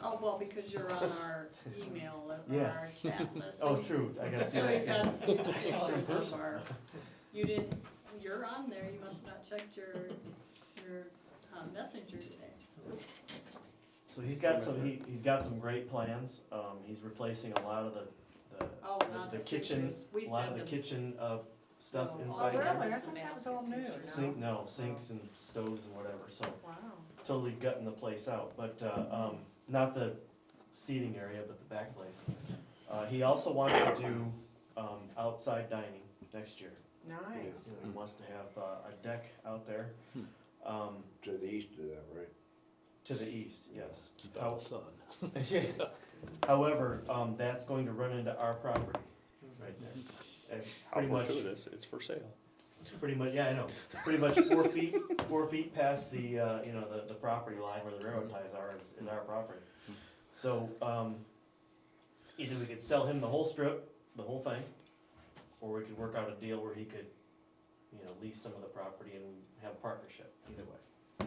Oh, well, because you're on our email, on Yeah. our chat list. Oh, true, I gotta see So that we've got too. to see the I saw it pictures in of person. our, you didn't, you're on there, you must have not checked your, your um, messenger today. So he's got some, he, he's got some great plans, um, he's replacing a lot of the, the, Oh, the- not the the kitchen, pictures. We a lot of sent the them. kitchen, uh, stuff Oh, inside. Oh, here. really? Like- I thought that was all new, Sink, no? no, sinks and stoves and whatever, so Wow. totally gutting the place out, but, uh, um, not the seating area, but the back place. Uh, he also wants to do, um, outside dining next year. Nice. You know, He wants to have, uh, a deck out there, um, To the east of that, right? to the east, yes. Keep out the sun. However, um, that's going to run into our property, right there. And How pretty much, fortuitous, it's for sale. pretty much, yeah, I know, pretty much four feet, four feet past the, uh, you know, the, the property line where the railroad ties are, is, is our property. So, um, either we could sell him the whole strip, the whole thing, or we could work out a deal where he could, you know, lease some of the property and have a partnership, either way.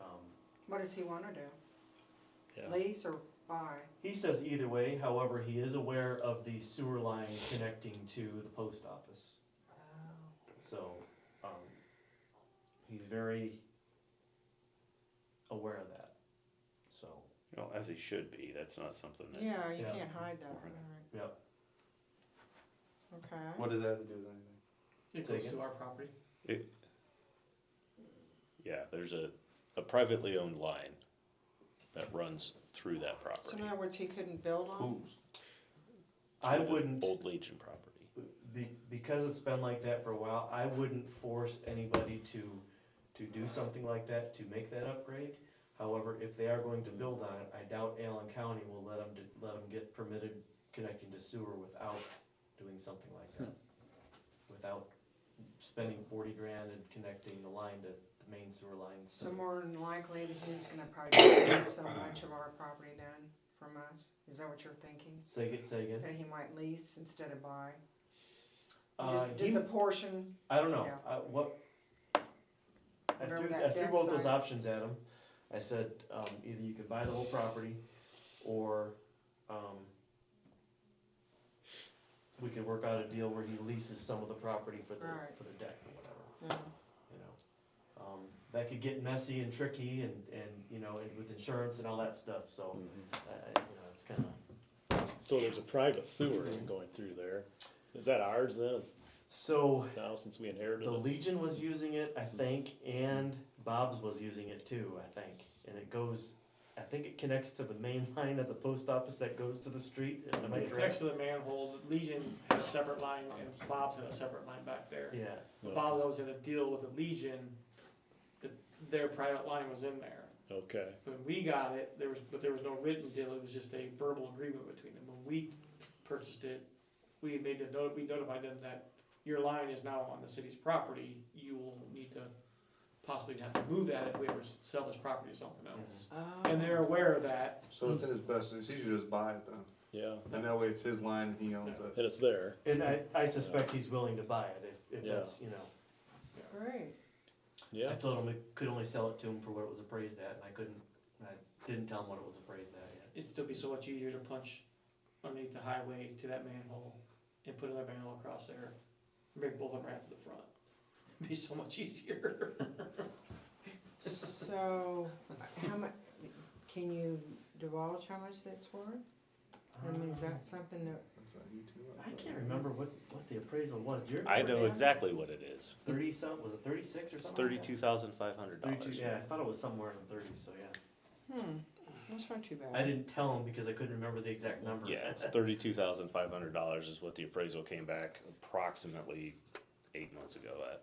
Um, What does he wanna do? Yeah. Lease or buy? He says either way, however, he is aware of the sewer line connecting to the post office. So, um, he's very aware of that. So, Well, as he should be, that's not something that. Yeah, you Yeah. can't hide that, Right. right, yep, okay. What does that have to do with anything? It Take goes it. to our property. Yeah, there's a, a privately owned line that runs through that So property. in other words, he couldn't build on? I through the wouldn't, Old Legion property. be, because it's been like that for a while, I wouldn't force anybody to, to do something like that, to make that upgrade. However, if they are going to build on it, I doubt Allen County will let them, let them get permitted connecting to sewer without doing something like that. Without spending forty grand and connecting the line to the main sewer line. So more than likely, that he's gonna probably lease so much of our property then from us? Is that what you're thinking? Say, ag- say again. That he might lease instead of buy? Uh, Just, he- just a portion? I don't know, Yeah. I, what? I Remember threw, that I threw deck both those sign? options at him, I said, um, either you could buy the whole property, or, um, we could work out a deal where he leases some of the property for the, Right. for the deck or whatever, Yeah. you know? Um, that could get messy and tricky and, and, you know, and with insurance and all that stuff, so, I, I, you know, it's kinda. So there's a private sewer going through there. Is that ours then, So, now since we inherited The it? Legion was using it, I think, and Bob's was using it too, I think. And it goes, I think it connects to the main line at the post office that goes to the street. Am I It correct? connects to the manhole, Legion had a separate line, and Bob's had a separate line back there. Yeah, Bob's always had a deal with the Legion, that their private line was in there. Okay, When we got it, there was, but there was no written deal, it was just a verbal agreement between them. When we purchased it, we made the, note- we notified them that your line is now on the city's property, you will need to possibly have to move that if we ever s- sell this property to something else. And they're aware of that, So it's in his best, he should just buy it then, yeah, and that way it's his line and he owns it. and it's there. and I, I suspect he's willing to buy it if, if Yeah. that's, you know. Great. I Yeah, told him we could only sell it to him for what it was appraised at, and I couldn't, I didn't tell him what it was appraised at yet. it'd still be so much easier to punch underneath the highway to that manhole and put another manhole across there. Make both of them right to the front. It'd be so much easier. So, how much, can you divulge how much that's worth? I mean, is that something that, Is that you too? I can't remember what, what the appraisal was. Do you I remember? know exactly what it is. Thirty some, was it thirty-six or It's something? like that? thirty-two thousand five hundred dollars. Thirty-two, yeah, I thought it was somewhere in the thirties, so yeah. hmm, that's not too bad. I didn't tell him because I couldn't remember the exact number. Yeah, it's thirty-two thousand five hundred dollars is what the appraisal came back approximately eight months ago at,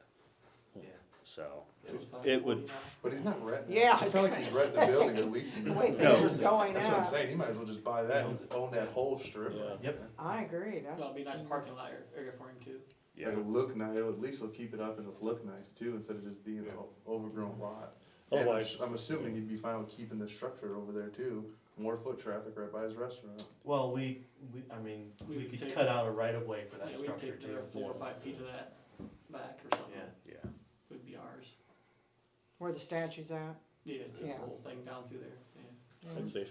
Yeah. so. It was probably It would, 49. But he's not renting. it. Yeah, I It's not like was he's gonna renting the building or leasing The it. way No. things are going That's what I'm up, saying, he might as well just buy that and own that whole strip. Yeah. Yep. I agree, that, That'd be a nice parking lot area for him too. yeah, It'll look nice, it'll at least it'll keep it up and it'll look nice too, instead of just being an overgrown lot. And I'm Otherwise- s- I'm assuming he'd be fine with keeping the structure over there too, more foot traffic right by his restaurant. Well, we, we, I mean, We we could could take- cut out a right of way for that Yeah, we'd structure take too. another four or five feet of that back or something, Yeah, yeah. would be ours. where the statue's at. Yeah, it's a Yeah. whole thing down through there, yeah. yeah. I'd say if